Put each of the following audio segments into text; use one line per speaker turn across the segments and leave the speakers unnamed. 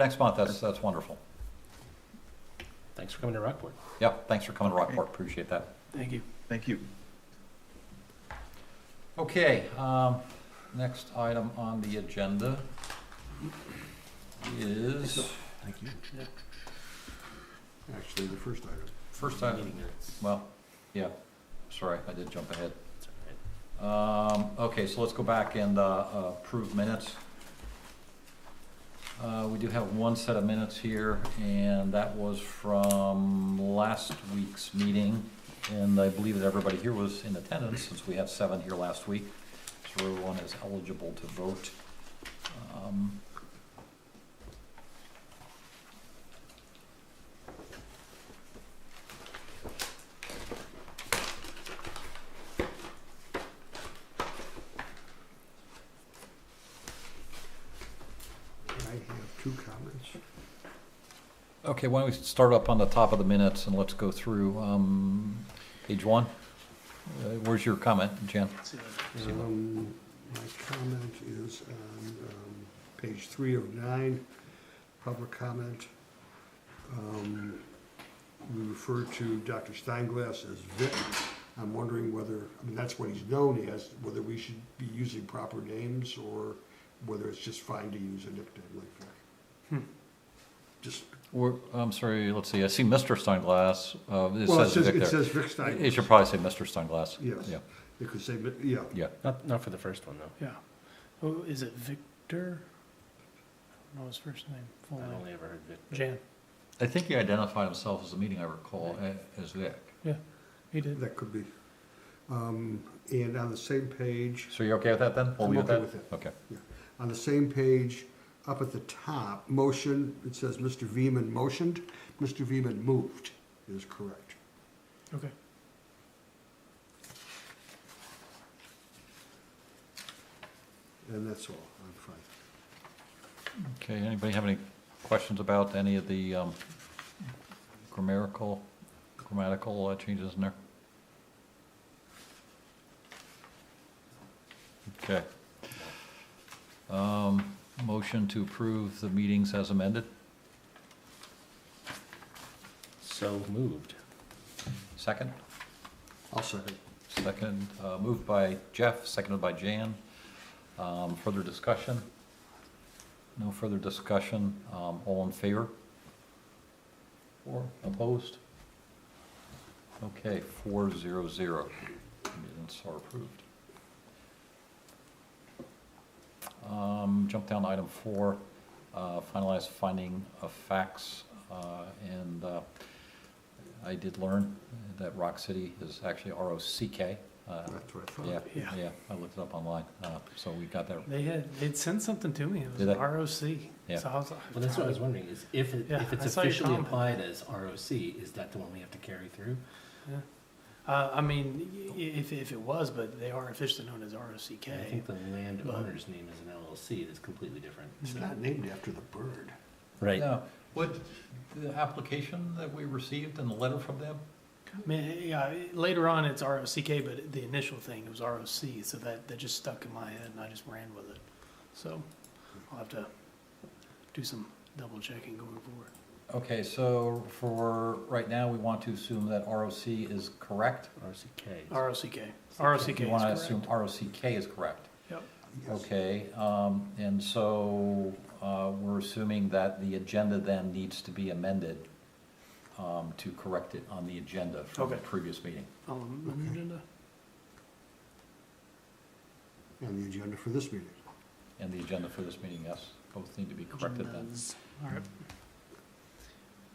next month, that's, that's wonderful.
Thanks for coming to Rockport.
Yeah, thanks for coming to Rockport, appreciate that.
Thank you.
Thank you.
Okay, um, next item on the agenda is,
Thank you. Actually, the first item.
First item.
Meeting minutes.
well, yeah, sorry, I did jump ahead.
It's all right.
Um, okay, so let's go back and, uh, approve minutes. Uh, we do have one set of minutes here, and that was from last week's meeting. And I believe that everybody here was in attendance, since we had seven here last week, so everyone is eligible to vote. Um,
I have two comments.
Okay, why don't we start up on the top of the minutes and let's go through, um, page one? Uh, Where's your comment, Jen?
Um, My comment is on um, page 309, public comment. Um, We refer to Dr. Steinglass as Vic. I'm wondering whether, I mean, that's what he's known as, whether we should be using proper names or whether it's just fine to use a nickname like Vic.
Hmm.
Just,
We're, I'm sorry, let's see, I see Mr. Sunglass, uh, it
well, it
says
says,
Vic
it
there.
says Vic
It should
Steinglass.
probably say Mr. Sunglass.
Yes.
Yeah,
It could say, Vic- yeah,
yeah.
Not, not for the first one, though.
Yeah. Oh, is it Victor? I don't know his first name, full
I've
name.
only ever heard Vic.
Jan,
I think he identified himself as the meeting I recall a- as Vic.
he did.
That could be. Um, And on the same page,
So you're okay with that then? We'll
I'm
leave it
okay
that?
with it.
Okay.
on the same page, up at the top, motion, it says Mr. Veman motioned, Mr. Veman moved is correct.
Okay.
And that's all, I'm fine.
Okay, anybody have any questions about any of the um, grammatical, grammatical uh, changes in there? Okay. Um, Motion to approve the meetings as amended.
So moved.
Second?
I'll second.
Second, uh, moved by Jeff, seconded by Jan. Um, Further discussion? No further discussion. Um, All in favor? Or opposed? Okay, four zero zero. Minutes are approved. Um, Jump down to item four, uh, finalize finding of facts. uh, And uh, I did learn that Rock City is actually R-O-C-K. uh,
That's what I thought.
Yeah,
Yeah.
yeah, I looked it up online, uh, so we got that.
They had, they'd sent something to me. It was
Did they?
ROC.
Yeah.
So I was like.
Well, that's what I was wondering, is if, it-
Yeah,
if it's
I saw your
officially
comment.
applied as ROC, is that the one we have to carry through?
Yeah. Uh, I mean, y- y- if, if it was, but they are officially known as ROCK.
I think the landowner's name is an LLC, that's completely different.
It's
so-
not named after the bird.
Right.
Now, what, the application that we received and the letter from them?
I mean, yeah, later on it's ROCK, but the initial thing was ROC, so that, that just stuck in my head and I just ran with it. So I'll have to do some double checking going forward.
Okay, so for, right now, we want to assume that ROC is correct?
ROCK.
ROCK. ROCK is
You want to
correct.
assume ROCK is correct?
Yep.
Yes.
Okay, um, and so, uh, we're assuming that the agenda then needs to be amended, um, to correct it on the agenda from the
Okay.
previous meeting.
Oh, um,
Okay.
agenda?
On the agenda for this meeting.
And the agenda for this meeting, yes, both need to be corrected then.
Agendas. All right.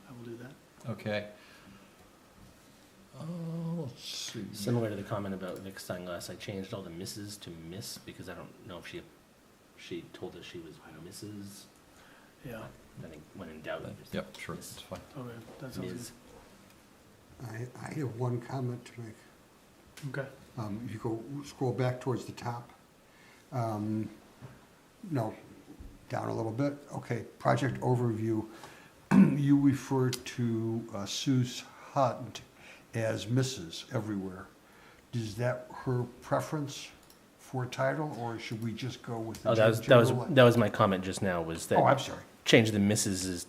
I will do that.
Okay. Uh, let's see.
Similar to the comment about Vic Steinglass, I changed all the misses to miss, because I don't know if she, she told us she was Mrs.
Yeah,
I think when in doubt. just
Yep, sure, it's fine.
okay, that sounds
Ms.
I, I have one comment to make.
good. Okay.
Um, If you go, scroll back towards the top, um, no, down a little bit, okay, project overview. You refer to uh, Sue's Hunt as Mrs. everywhere. Is that her preference for title, or should we just go with the
Oh,
gen-
that
general?
was, that was, that was my comment just now, was that.
Oh, I'm sorry,
change the misses is